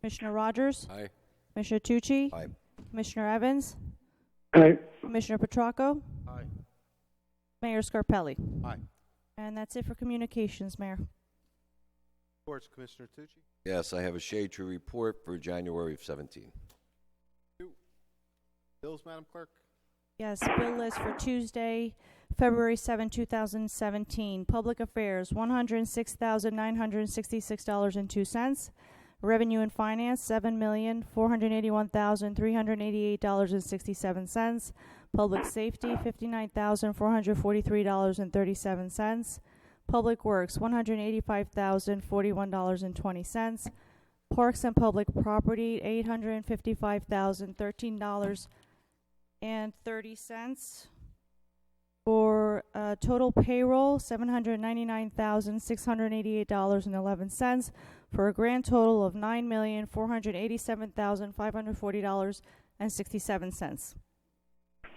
Commissioner Rogers? Aye. Commissioner Tucci? Aye. Commissioner Evans? aye, Commissioner Petracco? Aye. Mayor Scarpelli? Aye. And that's it for communications, Mayor. Reports, Commissioner Tucci. Yes, I have a shade tree report for January of 17. Bills, Madam Clerk. Yes, bill list for Tuesday, February 7, 2017. Public Affairs, $106,966.02. Revenue and Finance, $7,481,388.67. Public Safety, $59,443.37. Public Works, $185,041.20. Parks and Public Property, $855,013 and thirty cents for uh, total payroll seven hundred ninety nine thousand six hundred eighty eight dollars and eleven cents for a grand total of nine million four hundred eighty seven thousand five hundred forty dollars and sixty seven cents.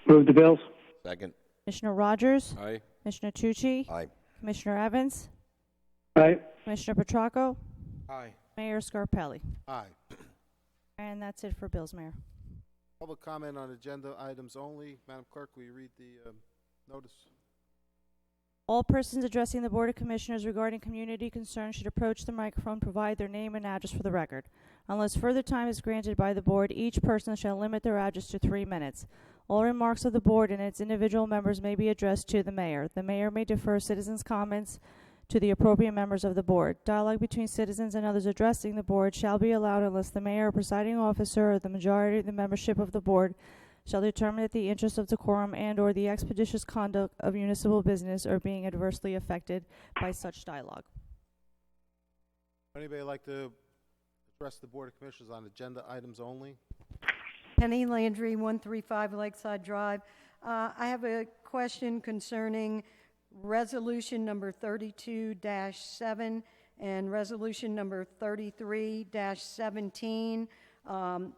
move the bills, Second. Commissioner Rogers, Aye. Commissioner Tucci, Aye. Commissioner Evans, aye, Commissioner Petracco, Aye. Mayor Scarpelli, Aye. and that's it for bills, Mayor. Public comment on agenda items only. Madam Clerk, will you read the um, notice? All persons addressing the Board of Commissioners regarding community concerns should approach the microphone, provide their name and address for the record. Unless further time is granted by the Board, each person shall limit their address to three minutes. All remarks of the Board and its individual members may be addressed to the Mayor. The Mayor may defer citizens' comments to the appropriate members of the Board. Dialogue between citizens and others addressing the Board shall be allowed unless the Mayor or presiding officer or the majority of the membership of the Board shall determine that the interests of decorum and or the expeditious conduct of municipal business are being adversely affected by such dialogue. Anybody like to address the Board of Commissioners on agenda items only? Penny Landry, 135 Lakeside Drive. Uh, I have a question concerning Resolution Number 32-7 and Resolution Number 33-17, um,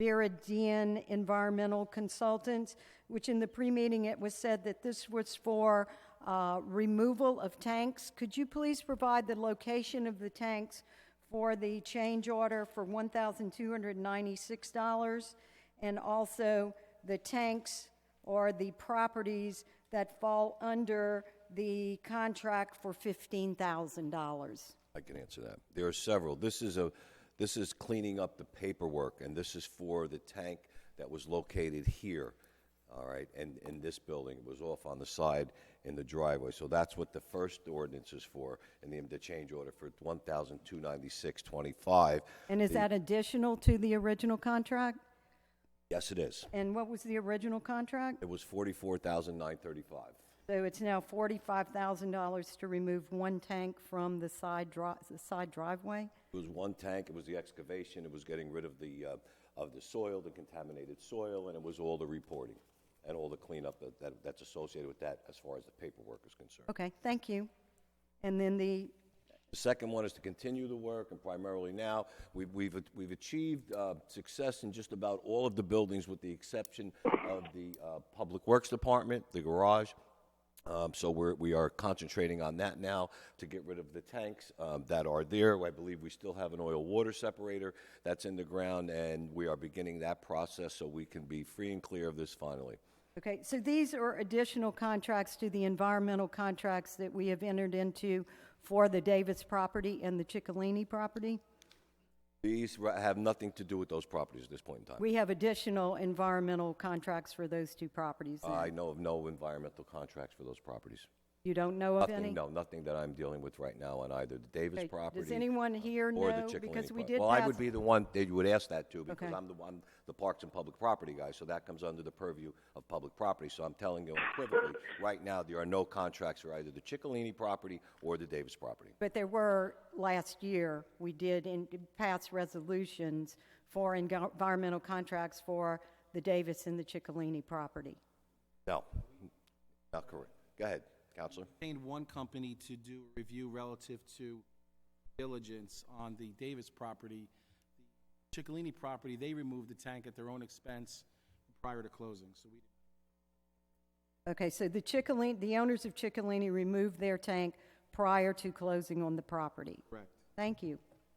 Viridian Environmental Consultants, which in the pre-meeting it was said that this was for uh, removal of tanks. Could you please provide the location of the tanks for the change order for $1,296? And also the tanks or the properties that fall under the contract for $15,000? I can answer that. There are several. This is a, this is cleaning up the paperwork, and this is for the tank that was located here, all right, and in this building. It was off on the side in the driveway. So that's what the first ordinance is for, and the, the change order for one thousand two ninety-six twenty-five. And is that additional to the original contract? Yes, it is. And what was the original contract? It was forty-four thousand nine thirty-five. So it's now $45,000 to remove one tank from the side dri- the side driveway? It was one tank, it was the excavation, it was getting rid of the, uh, of the soil, the contaminated soil, and it was all the reporting and all the cleanup that- that, that's associated with that as far as the paperwork is concerned. Okay, thank you. And then the, The second one is to continue the work, and primarily now, we've, we've, we've achieved uh, success in just about all of the buildings with the exception of the uh, Public Works Department, the garage. Um, So we're, we are concentrating on that now to get rid of the tanks um, that are there. I believe we still have an oil-water separator that's in the ground, and we are beginning that process so we can be free and clear of this finally. okay, so these are additional contracts to the environmental contracts that we have entered into for the Davis property and the Ciccolini property? These ra- have nothing to do with those properties at this point in time. We have additional environmental contracts for those two properties then? I know of no environmental contracts for those properties. You don't know of any? Nothing, no, nothing that I'm dealing with right now on either the Davis Okay, property. Does anyone here or the know? Chickalanny Because we property. did Well, I would pass- be the one that you would ask that to, because Okay. I'm the one, the Parks and Public Property guy, so that comes under the purview of public property. So I'm telling you unequivocally, right now, there are no contracts for either the Chickalini property or the Davis property. But there were, last year, we did in- pass resolutions for engo- environmental contracts for the Davis and the Ciccolini property. No, not correct. Go ahead, Counselor. retained one company to do a review relative to diligence on the Davis property. The Ciccolini property, they removed the tank at their own expense prior to closing, so we Okay, so the Ciccolini, the owners of Ciccolini removed their tank prior to closing on the property. correct. Thank you.